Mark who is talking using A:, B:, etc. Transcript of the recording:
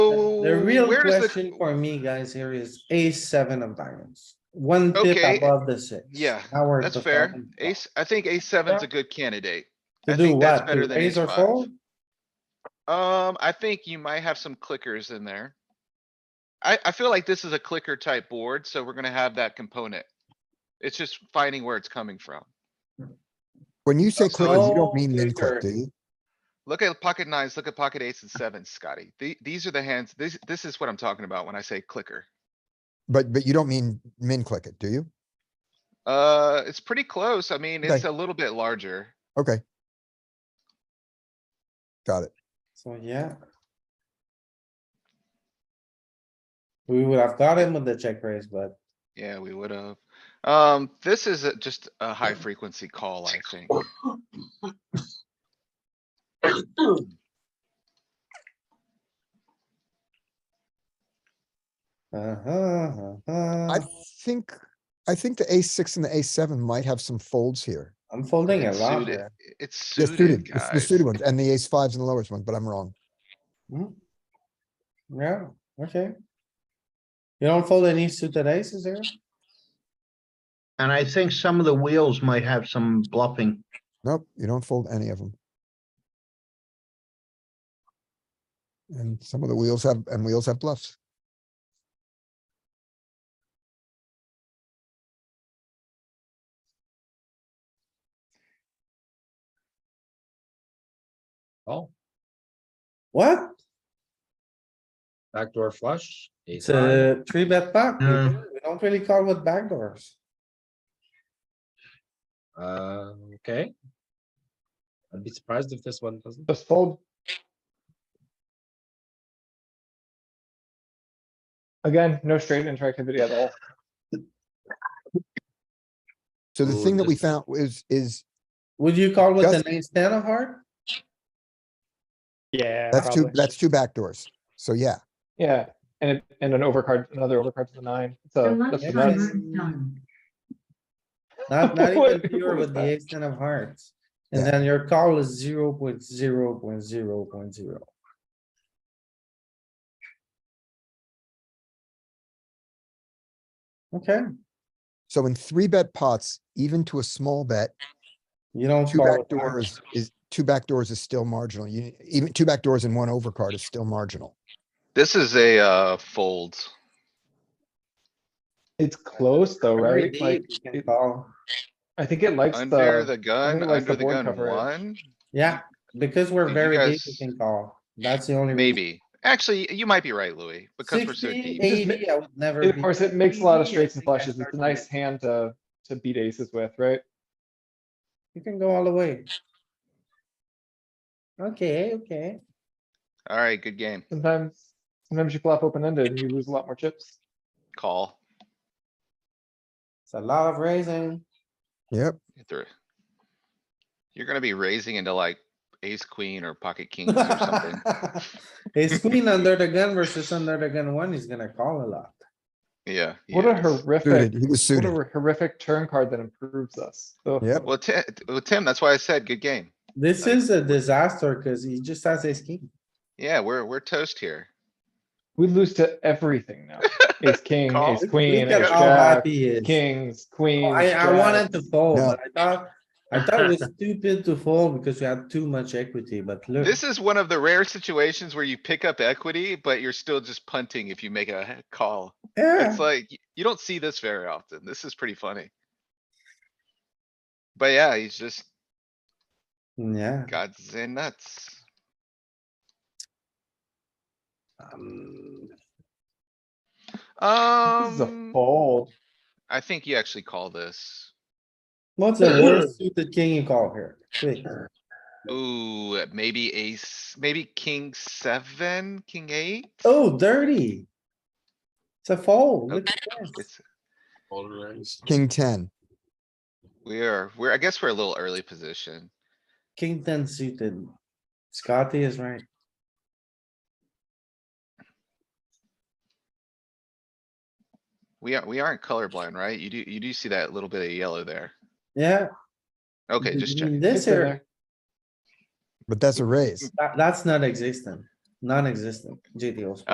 A: The real
B: where does the-
A: question for me, guys, here is ace seven of diamonds, one
B: Okay,
A: tip above the six.
B: yeah,
A: Now we're
B: That's
A: the
B: fair.
A: fucking top.
B: Ace, I think ace seven's a good candidate. I
A: To do
B: think that's
A: what?
B: better
A: To
B: than
A: raise
B: ace
A: or
B: five.
A: fold?
B: Um, I think you might have some clickers in there. I, I feel like this is a clicker type board, so we're gonna have that component. It's just finding where it's coming from.
C: When you say
B: That's
C: clicker, you
A: so
C: don't mean min click,
A: clicker.
C: do you?
B: Look at pocket nines, look at pocket eights and sevens, Scotty. The, these are the hands, this, this is what I'm talking about when I say clicker.
C: But, but you don't mean min click it, do you?
B: Uh, it's pretty close. I mean,
C: Okay.
B: it's a little bit larger.
C: Okay. Got it.
A: So, yeah. We would have got him with the check raise, but
B: Yeah, we would have. Um, this is a- just a high frequency call, I think.
A: uh-huh,
C: I
A: uh-huh,
C: think, I think the ace six and the ace seven might have some folds here.
A: I'm folding a
B: It's
A: lot
B: suited-
A: there.
B: It's
C: They're
B: suited,
C: suited, it's the
B: guys.
C: suited ones and the ace fives and the lowest ones, but I'm wrong.
A: Hmm. Yeah, okay. You don't fold any suited aces here?
D: And I think some of the wheels might have some bluffing.
C: Nope, you don't fold any of them. And some of the wheels have, and wheels have bluffs.
E: Oh,
A: What?
E: backdoor flush. ace
A: It's
E: high.
A: a three bet pot. We
D: Yeah.
A: do- we don't really call with backdoors.
E: Uh, okay. I'd be surprised if this one doesn't.
F: Just fold. Again, no straight interactivity at all.
C: So the
E: Ooh,
C: thing that we
E: this-
C: found is, is,
A: Would you call with
C: Just-
A: an ace ten of heart?
F: Yeah.
C: that's two,
F: probably.
C: that's two backdoors. So yeah,
F: Yeah, and it, and an overcard, another overcard to the nine. So that's
A: Yeah,
F: the
A: time
F: nuts.
A: is Not, not even
F: What-
A: pure
F: what
A: with
F: is
A: the
F: that?
A: ace ten of hearts. And
C: Yeah.
A: then your call is zero point zero point zero point zero. Okay,
C: so in three bet pots, even to a small bet,
A: you don't.
C: two
A: call
C: back
A: with hearts.
C: doors is, two back doors is still marginal. You, even two back doors and one overcard is still marginal.
B: This is a, uh, fold.
F: It's close though,
A: Very
F: right?
A: deep,
F: Like,
A: you can
F: it-
A: call.
F: I think it likes
B: Under
F: the,
B: the gun,
F: uh, it likes the
B: under the
F: board
B: gun
F: coverage.
B: one,
A: Yeah, because we're
B: You
A: very deep, you
B: guys-
A: can call. That's the only. reason.
B: maybe. Actually, you might be right, Louis, because we're so
A: 60,
B: deep.
F: eight- Just ma-
A: 80, I would never.
F: of
A: be-
F: course, it makes a lot of straights and
A: I think I
F: flushes. It's
A: start
F: a
A: to
F: nice
A: make-
F: hand to, to beat aces with, right?
A: You can go all the way. Okay, okay.
B: Alright, good game.
F: Sometimes, sometimes you flop open ended and you lose a lot more chips.
B: Call.
A: It's a lot of raising.
C: Yep.
B: Get through. You're gonna be raising into like ace, queen or pocket kings or something.
A: Ace queen under the gun versus under the gun one is gonna call a lot.
B: Yeah.
F: What a
B: yes.
F: horrific,
C: Suited, he was
F: what
C: suited.
F: a horrific turn card that improves us. So
C: Yep.
B: Well, Tim, well, Tim, that's why I said good game.
A: This
B: Like-
A: is a disaster cuz he just has ace king.
B: Yeah, we're, we're toast here.
F: We lose to everything now. Ace king,
B: Call.
F: ace
B: Look
F: queen,
A: Look at
F: ace
A: how
F: jack,
A: happy he is.
F: kings,
A: Oh,
F: queens.
A: I, I wanted to
F: jacks.
A: fold,
C: No.
A: but I thought, I thought it was stupid to fold because we had too much equity, but look.
B: This is one of the rare situations where you pick up equity, but you're still just punting if you make a call.
A: Yeah,
B: It's like, y- you don't see this very often. This is pretty funny. But yeah, he's just
A: yeah.
B: gods and nuts.
A: Um,
F: This is a
B: Um,
F: fold.
B: I think you actually call this.
A: What's the worst suited king you call here? Quick.
B: Ooh, maybe ace, maybe king seven, king eight?
A: Oh, dirty. It's a fold. Look
B: Okay.
A: at this.
B: It's,
E: Polarized.
C: King ten.
B: we are, we're, I guess we're a little early position.
A: King ten suited. Scotty is right.
B: We aren't, we aren't colorblind, right? You do, you do see that little bit of yellow there.
A: Yeah.
B: Okay, just
A: in
B: check.
A: This
F: It's in
A: here,
F: there.
C: But that's a raise.
A: that, that's not existent, non-existent, GTOs.